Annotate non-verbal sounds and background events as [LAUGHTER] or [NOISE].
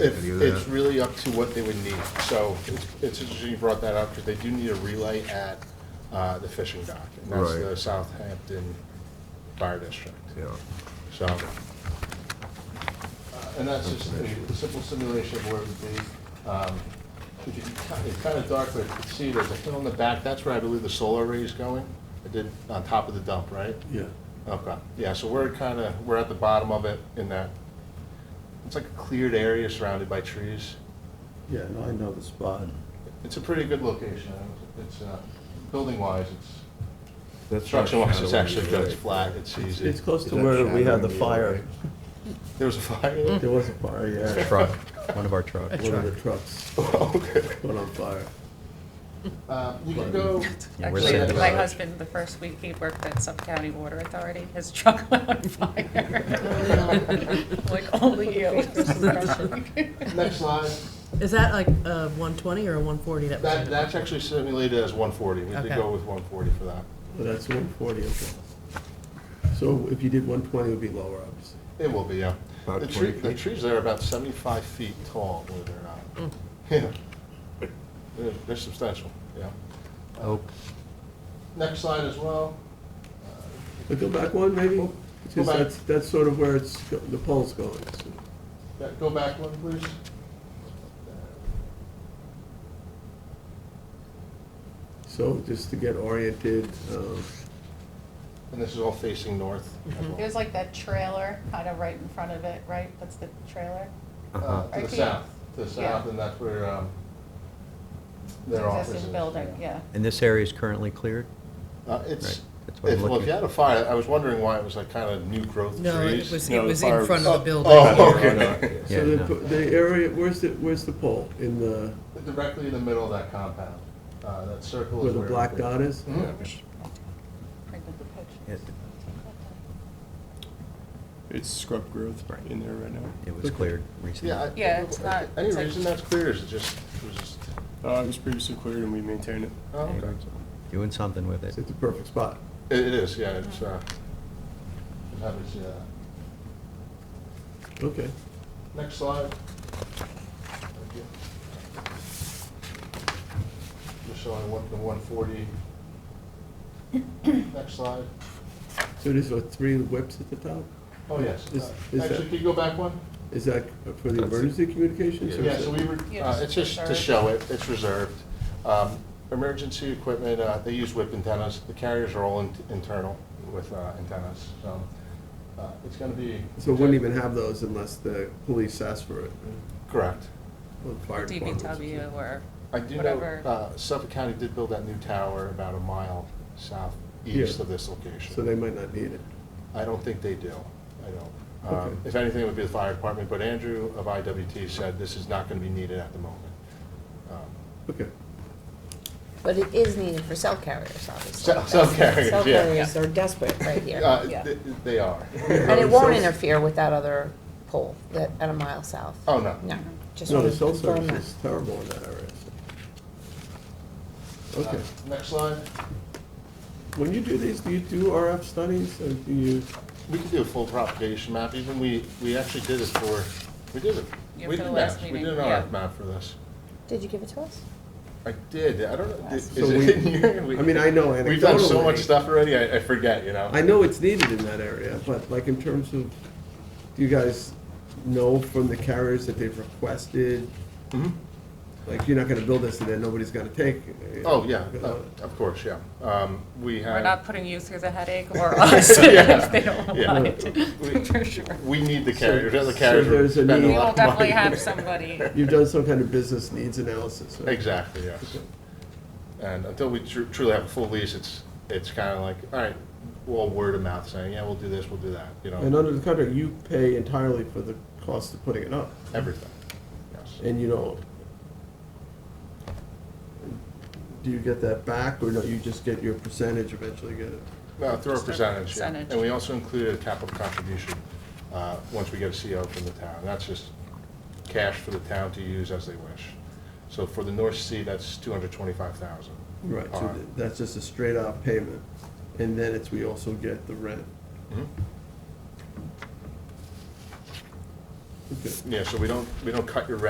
If, Any of it's that? really up to what they would need. So it's, it's interesting you brought that up, because they do need a relay at, uh, the fishing dock. And that's Right. the Southampton Fire District. Yeah, So, uh, and that's just a simple simulation of where it would be. Um, if you can ki- It's kind of dark, but you can see there's a hill in the back. That's where I believe the solar array is going. It did, on top of the dump, right? Yeah, Okay, yeah, so we're kind of, we're at the bottom of it in that, it's like a cleared area surrounded by trees. yeah, no, I know the spot. It's a pretty good location. It's, uh, building-wise, it's, That's construction-wise, it's shadowing, actually good. It's right. flat, it's It's- easy. It's close Is to that where we had shadowing the the fire. There was a fire? There was a fire, [LAUGHS] yeah. Truck, one of our trucks. One of the trucks Oh, Okay. caught on fire. Uh, You can [LAUGHS] go, Yeah, we're Actually, saying my that- husband, the first week he worked at Suffolk County Water Authority, his truck [LAUGHS] went on fire. Like, only you. next slide. Is that like a 120 or a 140 that was? That, that's actually simulated as 140. We did Okay. go with 140 for that. Well, that's one forty, okay. So if you did one twenty, it would be lower, obviously. It will be, yeah. About The tree, 20 the feet? trees there are about seventy-five feet tall, believe it or not. Hmm. Yeah. They're, they're substantial, yeah. Oak, Next slide as well. Uh, But go back one, maybe? Because back. that's, that's sort of where it's, go- the pole's going. so. Yeah, Go back one, please. So just to get oriented, um, And this is all facing north. as Mm-hmm. well. There's like that trailer kind of right in front of it, right? That's the trailer? Uh-huh. Uh, To the Right, south, to the yeah. south, and that's where, um, It's their office is. Existing building, yeah. and this area is currently cleared? Uh, it's, Right, that's what I'm if, well, if looking you at. had a fire, I was wondering why it was like kind of new growth trees. No, it was, No, it the was fire in front of the Oh, building. oh, [LAUGHS] Yeah, okay. Yeah, so the, no. po- the area, where's the, where's the pole? In the, Directly in the middle of that compound. Uh, That circle where is the where. black dot is? Mhm. Right with the picture. It It's scrub growth in there right now. it was cleared recently. Yeah. I- Yeah, it's not- Any it's like- reason that's clear, is it just, it was just, Uh, it was previously cleared and um, we maintain it. oh, okay. Doing something with it. It's at the perfect spot. It it is, yeah, Mm-hmm. it's, uh, I'm happy to see that. Okay. Next slide. Thank you. Just showing what the one forty. Next slide. So there's what, three whips at the top? Oh, yes. Is- Uh, is Actually, that- can you go back one? Is that for the That's it. emergency communications? or is Yeah, so it- we were, Yeah, uh, just it's just to reserved. show it, it's reserved. Um, Emergency equipment, uh, they use whip antennas, the carriers are all in- internal with uh, antennas, so uh, it's gonna be. So we wouldn't even have those unless the police asked for it, Correct. or the fire department. DBW or I do know whatever. uh, Suffolk County did build that new tower about a mile southeast Yeah. of this So location. they might not need it. I don't think they do, I don't. Um, Okay. If anything, it would be the fire department, but Andrew of IWT said this is not gonna be needed at the moment. Um, Okay. But it is needed for cell carriers, obviously. Cell- cell carriers, Cell yeah. carriers are desperate right here. uh, Yeah. th- They are. And it won't Um, Cell- interfere with that other pole that, at a mile south. Oh, no. No, just No, wanted the to cell confirm service that. is terrible in that area. Uh, Okay. Next slide. When you do these, do you do RF studies, or do you, We could do a full propagation map, even we, we actually did it for, we did it. Yeah, we for the did last maps. We meeting, did an yeah. RF map for this. Did you give it to us? I did, I don't know, is So it we- in here? [LAUGHS] We- I mean, I know We've done so much anecdotally. stuff already, I, I forget, you know? I know it's needed in that area, but like in terms of, do you guys know from the carriers that they've requested? Mhm. Like, you're not gonna build this and then nobody's gonna take? it. Oh, yeah, oh, of course, yeah. Um, we have. We're not putting you through the [LAUGHS] headache or us if [LAUGHS] they don't Yeah. want it, for sure. We need the carriers, the other so carriers would there's a spend a need- We lot will of money. definitely have somebody. You've done some kind of business needs analysis, right? Exactly, yes. And until we tru- truly have a full lease, it's, it's kind of like, all right, well, word of mouth saying, yeah, we'll do this, we'll do that, you And know, under the contract, you pay entirely for the cost of putting it up, everything. Yes. and you don't. Do you get that back, or no, you just get your percentage eventually, get it? Well, through a Just a percentage, yeah. percentage. And we also included a capital contribution, uh, once we get a CO from the town. That's just cash for the town to use as they wish. So for the North Sea, that's two hundred twenty-five thousand. Uh, Right, so Alright. th- that's just a straight out payment, and then it's, we hmm? also get the rent. Okay. Yeah, so we don't, we don't cut your revenue